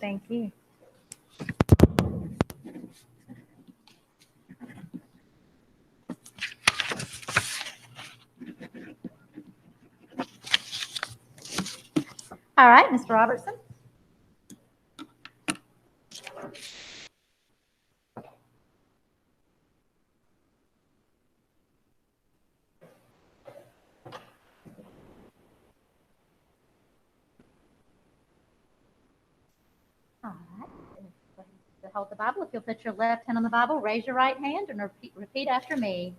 Thank you. All right, Mr. Robertson. All right. To hold the Bible, if you'll put your left hand on the Bible, raise your right hand and repeat, repeat after me.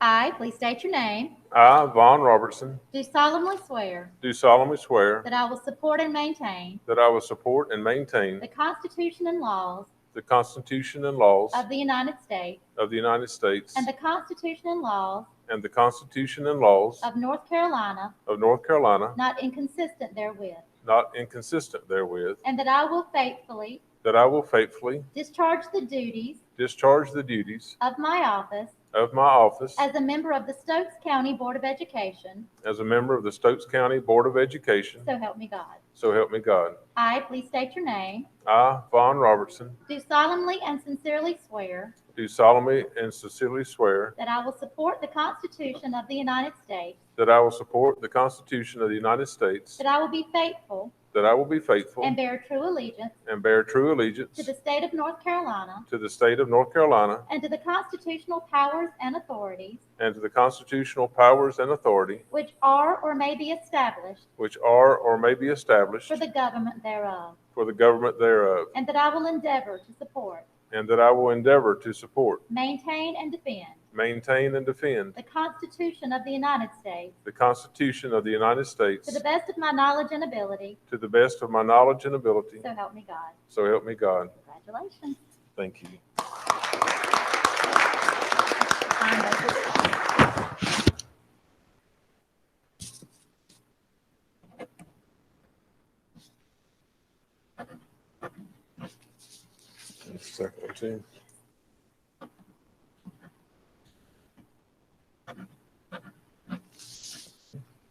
I, please state your name, I, Vaughn Robertson, do solemnly swear do solemnly swear that I will support and maintain that I will support and maintain the Constitution and laws the Constitution and laws of the United States of the United States and the Constitution and laws and the Constitution and laws of North Carolina, of North Carolina, not inconsistent therewith, not inconsistent therewith, and that I will faithfully that I will faithfully discharge the duties discharge the duties of my office of my office as a member of the Stokes County Board of Education, as a member of the Stokes County Board of Education, so help me God. so help me God. I, please state your name, I, Vaughn Robertson, do solemnly and sincerely swear do solemnly and sincerely swear that I will support the Constitution of the United States, that I will support the Constitution of the United States, that I will be faithful that I will be faithful and bear true allegiance and bear true allegiance to the state of North Carolina To the state of North Carolina and to the constitutional powers and authorities and to the constitutional powers and authority which are or may be established which are or may be established for the government thereof, for the government thereof, and that I will endeavor to support, and that I will endeavor to support, maintain, and defend maintain, and defend the Constitution of the United States the Constitution of the United States to the best of my knowledge and ability, to the best of my knowledge and ability. so help me God. So help me God. Congratulations. Thank you. Sign those. Second one, too.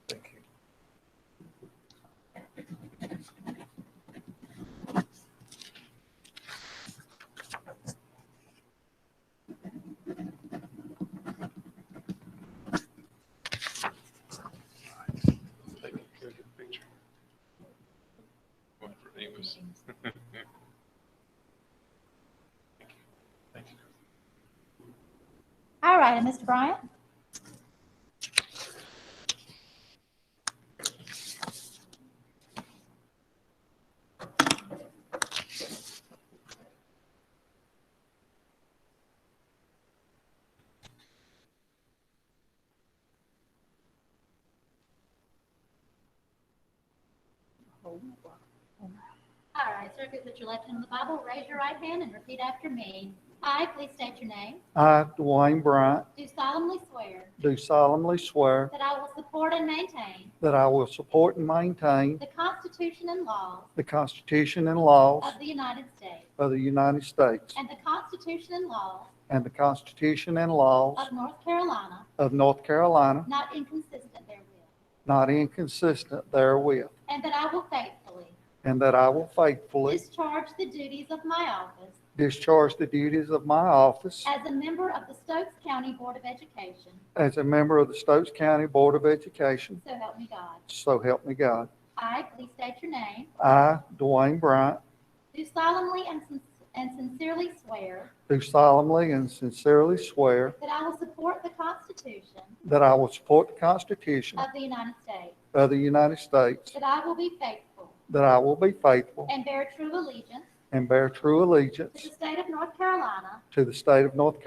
Thank you. All right, and Mr. Bryant? All right, sir, if you put your left hand on the Bible, raise your right hand and repeat after me. I, please state your name. I, Dwayne Bryant, Do solemnly swear do solemnly swear that I will support and maintain that I will support and maintain the Constitution and laws the Constitution and laws of the United States of the United States and the Constitution and laws and the Constitution and laws of North Carolina, of North Carolina, not inconsistent therewith, not inconsistent therewith, and that I will faithfully and that I will faithfully discharge the duties of my office discharge the duties of my office as a member of the Stokes County Board of Education. as a member of the Stokes County Board of Education. So help me God. So help me God. I, please state your name, I, Dwayne Bryant, do solemnly and sin- and sincerely swear do solemnly and sincerely swear that I will support the Constitution that I will support the Constitution of the United States, of the United States that I will be faithful That I will be faithful and bear true allegiance and bear true to allegiance the state of North Carolina to the state of North